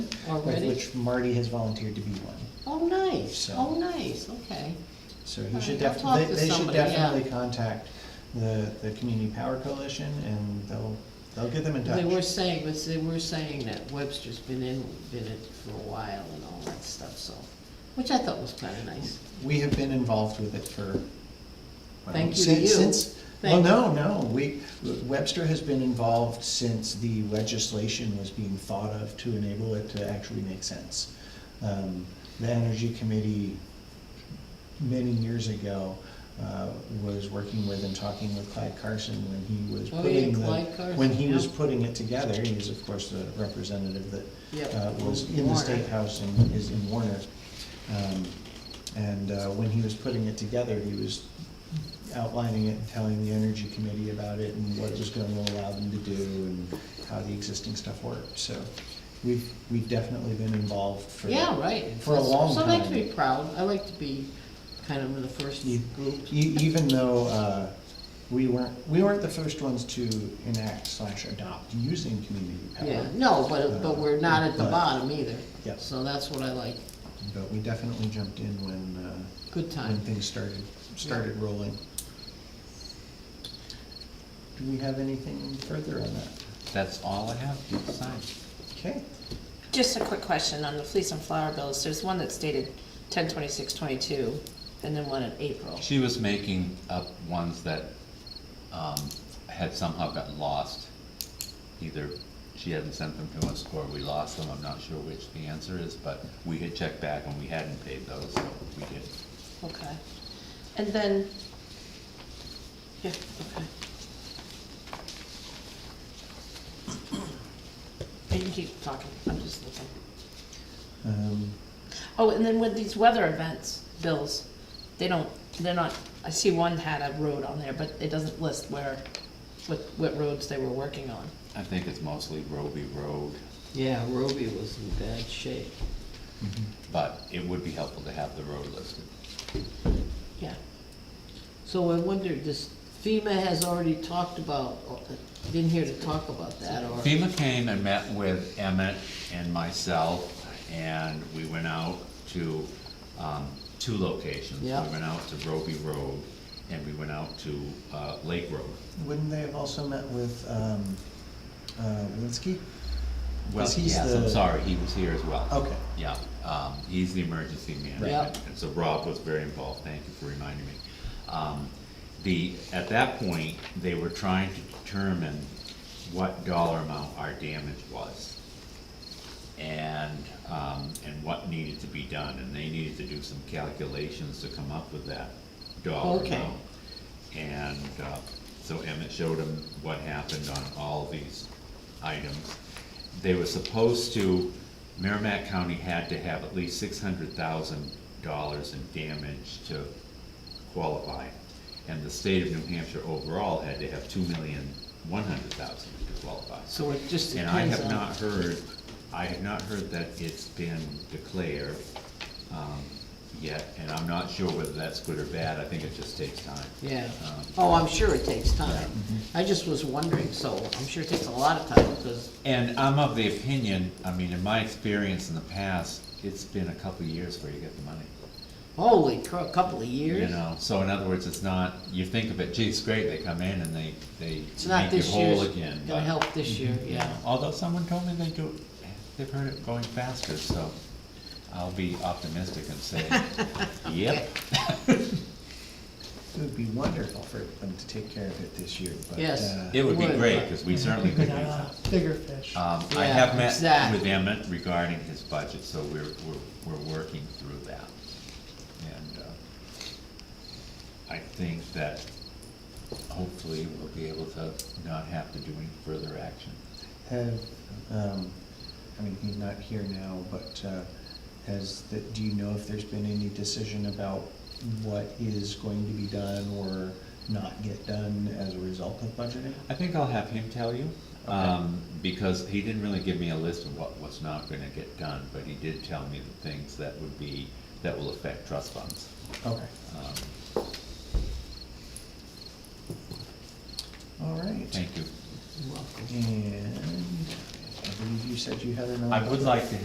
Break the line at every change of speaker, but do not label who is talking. Like,
already?
which Marty has volunteered to be one,
Oh, nice,
So-
oh, nice, okay.
so
All
you should
right, I'll
definitely,
talk
they
to
they should
somebody, yeah.
definitely contact the, the Community Power Coalition, and they'll, they'll get them in touch.
They were saying, but they were saying that Webster's been in, been in for a while and all that stuff, so, which I thought was kinda nice.
We have been involved with it for. well,
Thank you to
since-
you.
Since, well,
Thank-
no, no, we, Webster has been involved since the legislation was being thought of to enable it to actually make sense. Um, The Energy Committee, many years ago, uh, was working with and talking with Clyde Carson when he was
Oh, yeah,
putting the.
Clyde Carson,
When he was
yeah.
putting it together, he was of course the representative that
Yep.
uh, was in the
Warner.
State House and is in Warner. Um, And uh, when he was putting it together, he was outlining it and telling the Energy Committee about it and what it was gonna allow them to do and how the existing stuff worked, so we've, we've definitely been involved for.
Yeah, right.
for a long
So I like to
time.
be proud, I like to be kind of in the first
You-
group.
E- Even though uh, we weren't, we weren't the first ones to enact slash adopt using community
Yeah,
power,
no, but, but we're not at the
Uh, But-
bottom either.
Yep.
So that's what I like,
but we definitely jumped in when, uh,
good
when
time.
things started, started rolling. Do we have anything further on that?
That's all I have, you decide.
Okay,
Just a quick question on the fleece and flower bills, there's one that's dated ten twenty-six twenty-two, and then one in April.
She was making up ones that, um, had somehow gotten lost. Either she hadn't sent them to us or we lost them, I'm not sure which the answer is, but we had checked back and we hadn't paid those, so we did.
Okay. And then, yeah, okay. You can keep talking, I'm just looking.
um,
Oh, and then with these weather events bills, they don't, they're not, I see one had a road on there, but it doesn't list where, what, what roads they were working on.
I think it's mostly Roby Road,
Yeah, Roby was in bad shape. Mm-hmm.
but it would be helpful to have the road listed.
Yeah.
So I wonder, this FEMA has already talked about, been here to talk about that, or?
FEMA came and met with Emmett and myself, and we went out to, um, two locations.
Yeah.
We went out to Roby Road, and we went out to, uh, Lake Road.
wouldn't they have also met with, um, uh, Linsky?
Well,
'Cause he's
yes,
the-
I'm sorry, he was here as well.
Okay.
Yeah, um, he's the emergency
Right.
management, and so Rob was very involved, thank you for reminding me. Um, the, at that point, they were trying to determine what dollar amount our damage was. And, um, and what needed to be done, and they needed to do some calculations to come up with that dollar
Okay.
amount. And, uh, so Emmett showed him what happened on all these items. They were supposed to, Merrimack County had to have at least six hundred thousand dollars in damage to qualify. And the state of New Hampshire overall had to have two million, one hundred thousand to qualify.
So it just
And I
depends
have
on.
not heard, I have not heard that it's been declared, um, yet, and I'm not sure whether that's good or bad, I think it just takes time.
Yeah,
Um,
oh, I'm sure it takes time. I just was wondering, so I'm sure it takes a lot of time, because,
And I'm of the opinion, I mean, in my experience in the past, it's been a couple of years where you get the money.
holy crow, a couple of
You
years.
know, so in other words, it's not, you think of it, gee, it's great, they come in and they, they
It's not
make you
this year,
whole again.
gonna
but,
help this year,
you
yeah.
know, Although someone told me they do, they've heard it going faster, so I'll be optimistic and say, yep.
It would be wonderful for them to take care of it this year, but.
Yes.
uh,
It would be
Would.
great, because we certainly could use that.
Bigger fish.
Um, I
Yeah,
have met
exactly.
with Emmett regarding his budget, so we're, we're, we're working through that. And, uh, I think that hopefully we'll be able to not have to do any further action.
Have, um, I mean, he's not here now, but, uh, has, the- do you know if there's been any decision about what is going to be done or not get done as a result of budgeting?
I think I'll have him tell you, um, because he didn't really give me a list of what was not gonna get done, but he did tell me the things that would be, that will affect trust funds.
Okay,
Um,
all right.
Thank you.
Welcome.
And I believe you said you had another.
I would like to